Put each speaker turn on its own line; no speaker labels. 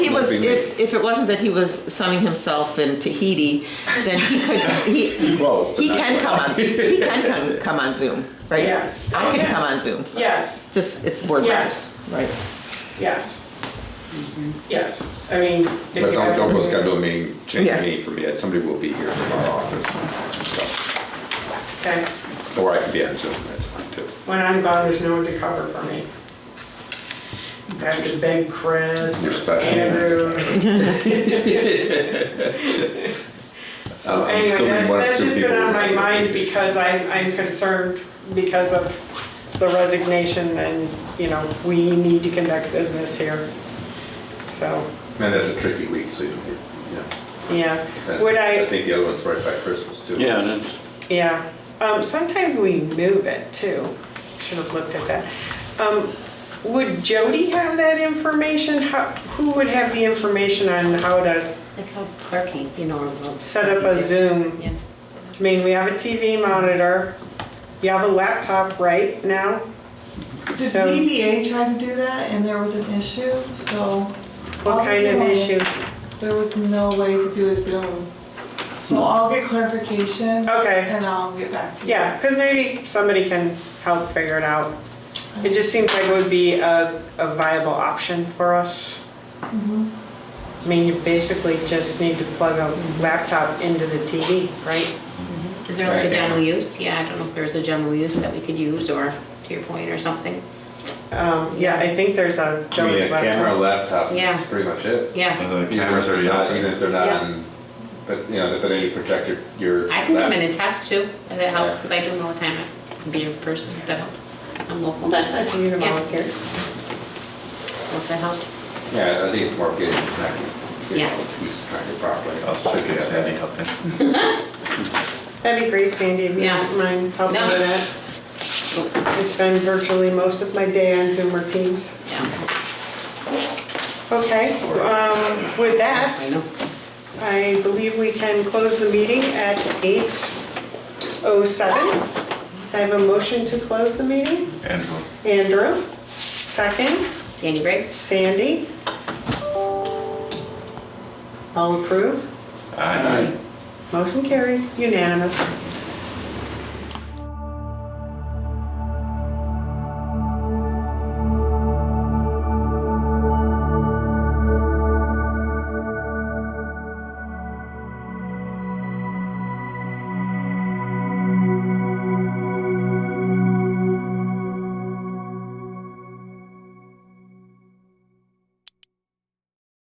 every week.
if, if it wasn't that he was sunning himself in Tahiti, then he could, he,
Close, but
he
not
can
quite.
come on, he can come, come on Zoom, right?
Yeah.
I can come on Zoom,
Yes,
just, it's board
Yes.
members, right?
yes. Yes, I mean. if
But
you
don't,
have
don't go
this-
schedule a meeting, change
Yeah.
a meeting for me, somebody will be here from our office.
Okay,
So- Or I can be on Zoom, that's fine too.
when I'm gone, there's no one to cover for me. Dr. Ben, Chris,
You're special.
Andrew.
I'm-
So
I'm
anyway,
still in
that's,
one or
that's
two
just been
people.
on my mind because I'm, I'm concerned because of the resignation and, you know, we need to conduct business here. So,
And that's a tricky week, so you don't get, yeah.
yeah,
That-
would I?
I think the other one's right by Christmas too.
Yeah, that's,
Yeah, um, sometimes we move it too. Should have looked at that. Um, would Jody have that information? How, who would have the information on how to
Like how clerking, you know, or we'll-
set up a Zoom?
Yeah.
I mean, we have a TV monitor. You have a laptop right now?
The
So-
ZBA tried to do that and there was an issue, so. all
What kind of
Zoom,
issue?
There was no way to do a Zoom. So I'll get clarification.
Okay.
And I'll get back to you.
Yeah, because maybe somebody can help figure it out. It just seems like it would be a, a viable option for us.
Mm-hmm.
I mean, you basically just need to plug a laptop into the TV, right?
Is there like
Right.
a general use? Yeah, I don't know if there's a general use that we could use or to your point or something.
Um, yeah, I think there's a
I mean, a
Jones
camera,
laptop.
laptop,
Yeah.
that's pretty much it.
Yeah.
The
Even if
cameras
they're
are out
not,
there.
even if they're not
Yeah.
on, but, you know, but then you project your, your.
I can come in
lap-
and test too, if that helps, because I do know the time I can be in person, if that helps. I'm local.
That's nice of you to
Yeah.
volunteer.
So if that helps.
Yeah, I think it's more getting connected.
Yeah.
Pieces connected properly.
I'll stick it Sandy Huffin.
That'd be great, Sandy, if you
Yeah.
don't mind helping
No.
with that. I spend virtually most of my day on Zoom or Teams.
Yeah.
Okay, um, with that.
I know.
I believe we can close the meeting at 8:07. I have a motion to close the meeting.
Andrew.
Andrew, second.
Sandy Briggs?
Sandy. All approve.
Aye.
Motion carried, unanimous.